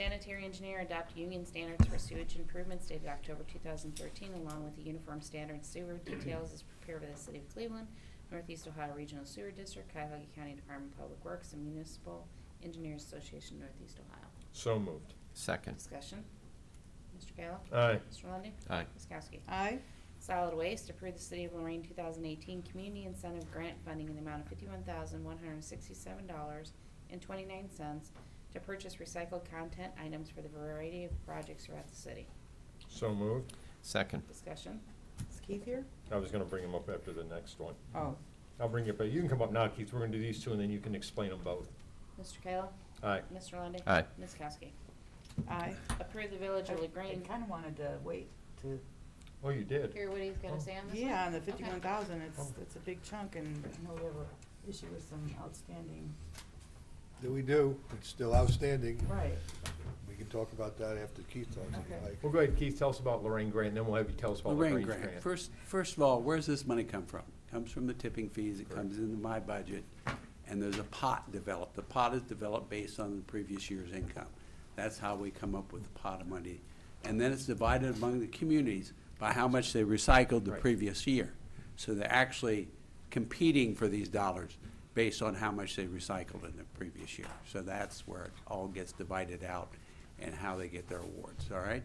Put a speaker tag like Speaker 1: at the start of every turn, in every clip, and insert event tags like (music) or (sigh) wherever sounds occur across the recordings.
Speaker 1: Sanitary engineer adopt union standards for sewage improvements dated October 2013, along with the uniform standard sewer details as prepared by the City of Cleveland, Northeast Ohio Regional Sewer District, Cuyahoga County Department of Public Works, and Municipal Engineers Association, Northeast Ohio.
Speaker 2: So moved.
Speaker 3: Second.
Speaker 1: Discussion. Mr. Kayla?
Speaker 2: Aye.
Speaker 1: Mr. Lundey?
Speaker 3: Aye.
Speaker 1: Ms. Kowski?
Speaker 4: aye,
Speaker 1: Solid Waste approved the City of Lorraine 2018 Community Incentive Grant Funding in the amount of $51,167.29 to purchase recycled content items for the variety of projects throughout the city.
Speaker 2: So moved.
Speaker 3: Second.
Speaker 1: Discussion.
Speaker 4: is Keith here?
Speaker 2: I was gonna bring them up after the next one.
Speaker 4: Oh,
Speaker 2: I'll bring you up, but you can come up now, Keith. We're gonna do these two, and then you can explain them both.
Speaker 1: Mr. Kayla?
Speaker 2: Aye.
Speaker 1: Mr. Lundey?
Speaker 3: Aye.
Speaker 1: Ms. Kowski?
Speaker 4: aye.
Speaker 1: Approve the Village of LaGrange.
Speaker 4: I kind of wanted to wait to,
Speaker 2: Oh, you did.
Speaker 1: Hear what he's got
Speaker 2: Oh.
Speaker 1: to say on this one?
Speaker 4: yeah, on the
Speaker 1: Okay.
Speaker 4: fifty-one thousand, it's,
Speaker 2: Oh.
Speaker 4: it's a big chunk and I know we have a issue with some outstanding.
Speaker 5: That we do, it's still outstanding.
Speaker 4: Right.
Speaker 5: We can talk about that after Keith talks, if
Speaker 4: Okay.
Speaker 5: you
Speaker 2: Well,
Speaker 5: like.
Speaker 2: go ahead, Keith. Tell us about Lorraine Grant, and then we'll have you tell us about
Speaker 6: Lorraine
Speaker 2: Lorraine
Speaker 6: Grant.
Speaker 2: Grant.
Speaker 6: First, first of all, where's this money come from? Comes from the tipping fees, it comes into my budget, and there's a pot developed. The pot is developed based on the previous year's income. That's how we come up with the pot of money. And then it's divided among the communities by how much they recycled the
Speaker 2: Right.
Speaker 6: previous year. So they're actually competing for these dollars based on how much they recycled in the previous year. So that's where it all gets divided out and how they get their awards, all right?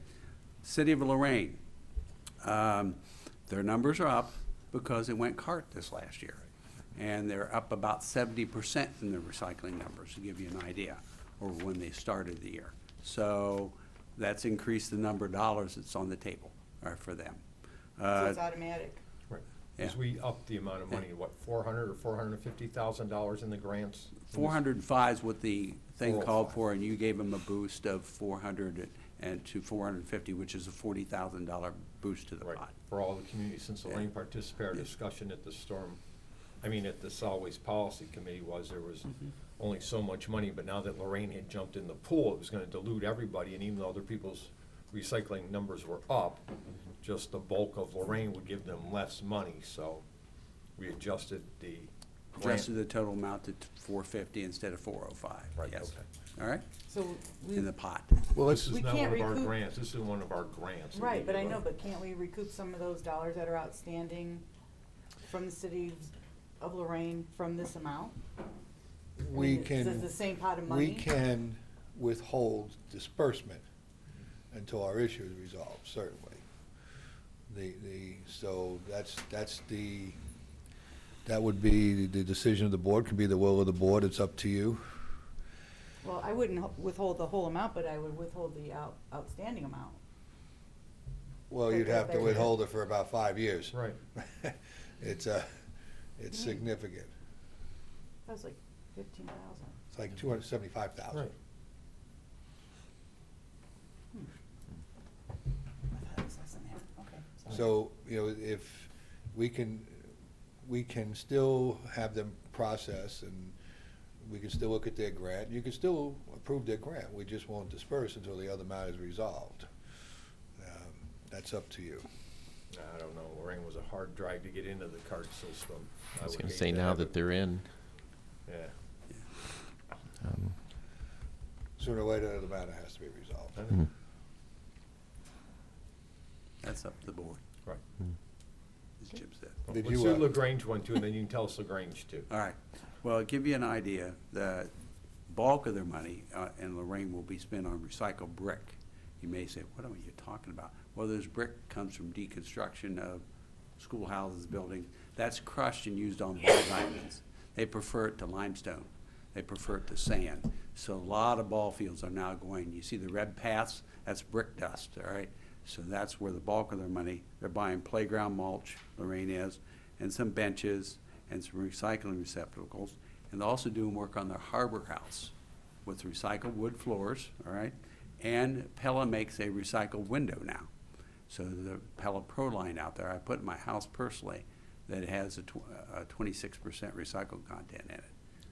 Speaker 6: City of Lorraine, um, Their numbers are up because it went cart this last year. And they're up about seventy percent in the recycling numbers, to give you an idea, or when they started the year. So that's increased the number of dollars that's on the table, uh, for them.
Speaker 4: So
Speaker 6: Uh,
Speaker 4: it's automatic.
Speaker 2: Right.
Speaker 6: Yeah.
Speaker 2: As we up the amount of money, what, four hundred or four hundred and fifty thousand dollars in the grants?
Speaker 6: Four hundred and five is what the thing called
Speaker 2: 405.
Speaker 6: for, and you gave them a boost of four hundred and to four hundred and fifty, which is a forty thousand dollar boost to the
Speaker 2: Right,
Speaker 6: pot.
Speaker 2: for all the communities, since Lorraine
Speaker 6: Yeah.
Speaker 2: participated, our
Speaker 6: Yeah.
Speaker 2: discussion at the storm, I mean, at the solid waste policy committee was, there was
Speaker 4: Mm-hmm.
Speaker 2: only so much money, but now that Lorraine had jumped in the pool, it was gonna dilute everybody, and even though other people's recycling numbers were up, just the bulk of Lorraine would give them less money, so we adjusted the grant.
Speaker 6: Adjusted the total amount to four fifty instead of four oh five,
Speaker 2: Right,
Speaker 6: yes.
Speaker 2: okay.
Speaker 6: All right?
Speaker 4: So we,
Speaker 6: in the pot.
Speaker 5: Well,
Speaker 2: This
Speaker 5: let's,
Speaker 2: is
Speaker 4: We
Speaker 2: not
Speaker 4: can't
Speaker 2: one of our
Speaker 4: recoup-
Speaker 2: grants, this is one of our grants. that we
Speaker 4: right, but I
Speaker 2: give
Speaker 4: know,
Speaker 2: out.
Speaker 4: but can't we recoup some of those dollars that are outstanding from the city of Lorraine from this amount? I
Speaker 5: we
Speaker 4: mean, it's the-
Speaker 5: can,
Speaker 4: the same pot of money?
Speaker 5: we can withhold disbursement until our issue is resolved, certainly. The, the, so that's, that's the, that would be, the decision of the board, could be the will of the board, it's up to you.
Speaker 4: Well, I wouldn't ho- withhold the whole amount, but I would withhold the out, outstanding amount.
Speaker 5: Well, you'd have to withhold it for about five years.
Speaker 2: Right,
Speaker 5: (laughs) It's a, it's
Speaker 4: Mm.
Speaker 5: significant.
Speaker 4: That was like fifteen thousand.
Speaker 5: It's like two hundred seventy-five thousand.
Speaker 2: right.
Speaker 4: I thought it was less than that, okay. sorry.
Speaker 5: So, you know, if we can, we can still have them process and we can still look at their grant. You can still approve their grant. We just won't disperse until the other matter is resolved. Um, That's up to you.
Speaker 2: I don't know, Lorraine was a hard drag to get into the cart system.
Speaker 3: I was
Speaker 2: would
Speaker 3: going to
Speaker 2: hate
Speaker 3: say,
Speaker 2: to
Speaker 3: now
Speaker 2: have
Speaker 3: that
Speaker 2: it-
Speaker 3: they're in,
Speaker 2: Yeah.
Speaker 3: um,
Speaker 5: Sooner or later, the matter has to be resolved.
Speaker 2: I know.
Speaker 3: Mhm.
Speaker 6: That's up to the board,
Speaker 2: Right.
Speaker 6: as Jim said.
Speaker 2: Well,
Speaker 5: Did
Speaker 2: Let's
Speaker 5: you,
Speaker 2: do
Speaker 5: uh,
Speaker 2: LaGrange one too, and then you can tell us LaGrange too.
Speaker 6: All right. Well, I'll give you an idea, the bulk of their money uh, in Lorraine will be spent on recycled brick. You may say, what are you talking about? Well, this brick comes from deconstruction of schoolhouses, buildings. That's crushed and used on ball diamonds. They prefer it to limestone. They prefer it to sand. So a lot of ball fields are now going, you see the red paths, that's brick dust, all right? So that's where the bulk of their money, they're buying playground mulch, Lorraine is, and some benches, and some recycling receptacles, and they're also doing work on their harbor house with recycled wood floors, all right? And Pella makes a recycled window now. So the Pella Pro line out there, I put in my house personally, that has a tw- a twenty-six percent recycled content in it.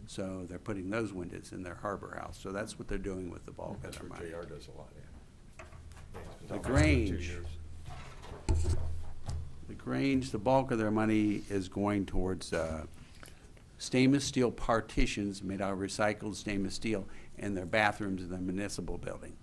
Speaker 6: So they're putting those windows in their harbor house, so that's what they're doing with the bulk of
Speaker 2: That's
Speaker 6: their
Speaker 2: what
Speaker 6: money.
Speaker 2: JR does a lot, yeah. Yeah, he's been talking
Speaker 6: The
Speaker 2: about it for two
Speaker 6: Grange.
Speaker 2: years.
Speaker 6: The Grange, the bulk of their money is going towards uh, stainless steel partitions made out of recycled stainless steel in their bathrooms in the municipal building.